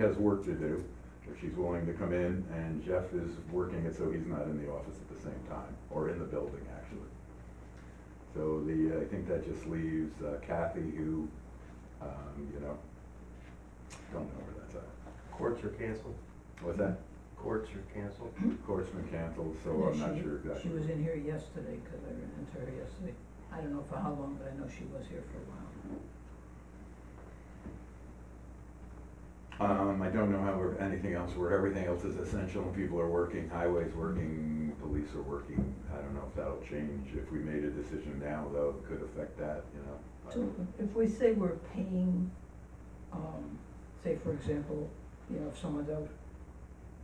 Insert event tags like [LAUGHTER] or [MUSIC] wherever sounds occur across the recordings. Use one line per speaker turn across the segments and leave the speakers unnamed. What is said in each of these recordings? She has work to do, if she's willing to come in, and Jeff is working it so he's not in the office at the same time, or in the building, actually. So the, uh, I think that just leaves uh, Kathy, who, um, you know, don't know where that's at.
Courts are canceled.
What's that?
Courts are canceled.
Court's been canceled, so
And
I'm
she-
not sure
She
exactly.
was in here yesterday, because I ran into her yesterday. I don't know for how long, but I know she was here for a while.
Um, I don't know how, we're- anything else, where everything else is essential, and people are working, highways working, police are working. I don't know if that'll change, if we made a decision now, though, it could affect that, you know. I don't-
So if we say we're paying, um, say for example, you know, if someone's out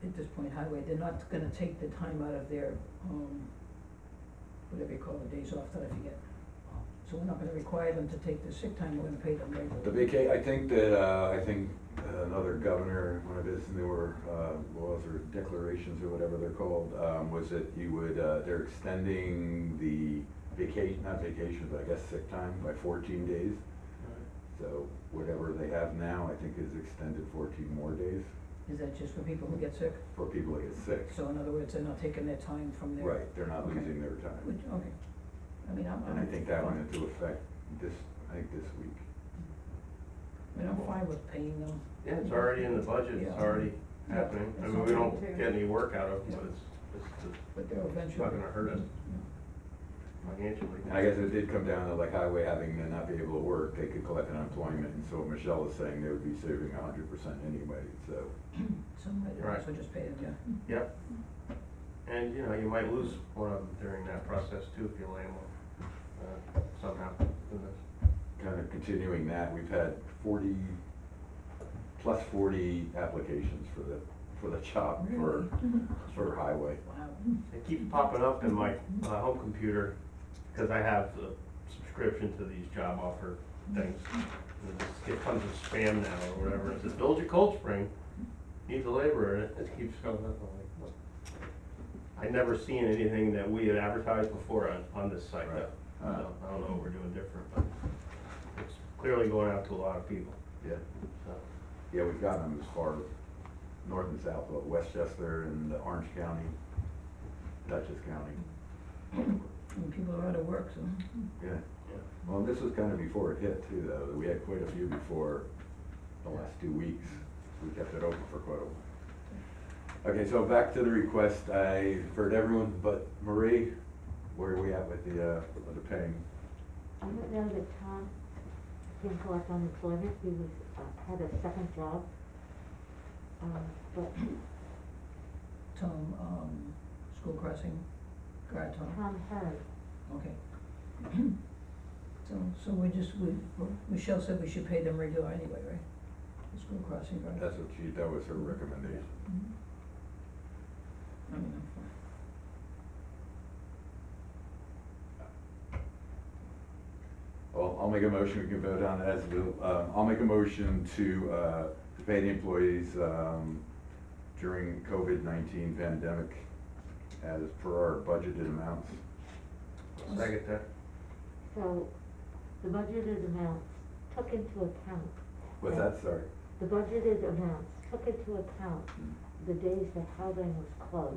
at this point highway, they're not gonna take the time out of their, um, whatever you call the days off that I forget. So we're not gonna require them to take the sick time, we're gonna pay them regularly.
The vaca, I think that, uh, I think another governor, one of his newer, uh, laws or declarations or whatever they're called, um, was that you would, uh, they're extending the vacation, not vacation, but I guess sick time by fourteen days. So whatever they have now, I think is extended fourteen more days
Is that just for people who get sick?
for people that get sick.
So in other words, they're not taking their time from their.
Right, they're not
Okay.
losing their time.
Which, okay, I mean, I'm, I'm.
And I think that went
fine.
into effect this, I think this week.
I mean, I'm fine with paying them.
Yeah, it's already in the budget, it's
Yeah.
already happening. I mean, we don't get any work out of it, but it's, it's
But they're
it's
eventually.
not gonna hurt us
Yeah.
financially.
And I guess it did come down to like highway having to not be able to work, they could collect unemployment, and so Michelle is saying they would be saving a hundred percent anyway, so.
So might
Right.
also just pay them, yeah.
Yep. And, you know, you might lose one of them during that process too, if you land one, uh, somehow. Who knows?
Kind of continuing that, we've had forty, plus forty applications for the, for the job for, for highway.
Wow.
It keeps popping up in my, uh home computer, because I have the subscription to these job offer things. And it's- It comes with spam now or whatever, it says, build your cold spring, needs a laborer, and it keeps coming up, I'm like, what? I never seen anything that we had advertised before on, on this site though. So,
Right.
I don't know what we're doing different, but it's clearly going out to a lot of people,
Yeah,
so.
yeah, we've gotten them as far north and south, but Westchester and the Orange County, Dutchess County.
And people are out of work, so.
Yeah,
Yeah.
well, this was kind of before it hit too, though, we had quite a few before the last two weeks, we kept it open for quite a while. Okay, so back to the request, I heard everyone but Marie, where are we at with the, uh, with the paying?
I don't know that Tom can collect unemployment, he was, uh, had a second job. Um, but
Tom, um, school crossing guard, Tom,
Tom Heard,
okay. [CLEARS THROAT] So, so we just, we, Michelle said we should pay them regular anyway, right? The school crossing guard.
That's what she, that was her recommendation.
Mhm. I mean, I'm fine.
Well, I'll make a motion, we can vote on it as, we- um, I'll make a motion to, uh, to pay the employees, um, during COVID nineteen pandemic as per our budgeted amounts.
Second that,
so the budgeted amounts took into account,
What's that, sorry?
the budgeted amounts took into account the days that Howden was closed.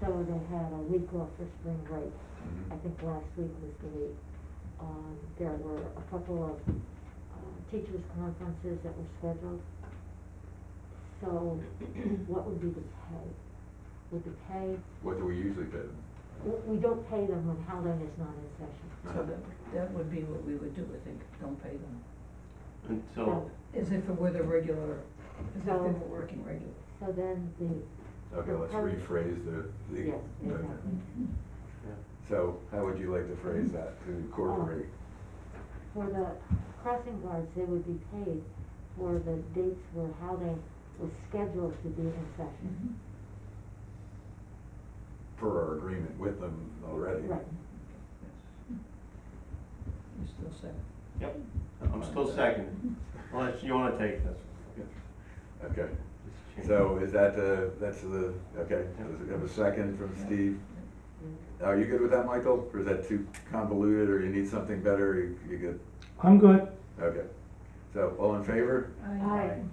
So they had a week off for spring break,
Mhm.
I think last week was the week. Um, there were a couple of, uh, teachers' conferences that were scheduled. So [CLEARS THROAT] what would be the pay? Would the pay,
What do we usually bid?
we- we don't pay them when Howland is not in session.
So that, that would be what we would do, I think, don't pay them,
until,
as if it were the regular, as if they were
No.
working regular.
So then the,
Okay, let's rephrase the, the.
yes, exactly.
yeah.
So how would you like to phrase that to incorporate?
Oh. For the crossing guards, they would be paid for the dates where Howland was scheduled to be in
Mm-hmm.
session.
Per our agreement with them already.
Right.
You still say,
Yep, I'm still second. Unless you wanna take this.
Okay,
Just change.
so is that the, that's the, okay, does it have a second from Steve? Are you good with that, Michael? Or is that too convoluted or you need something better? You you good?
I'm good.
Okay.
So all in favor?
I-
Aye.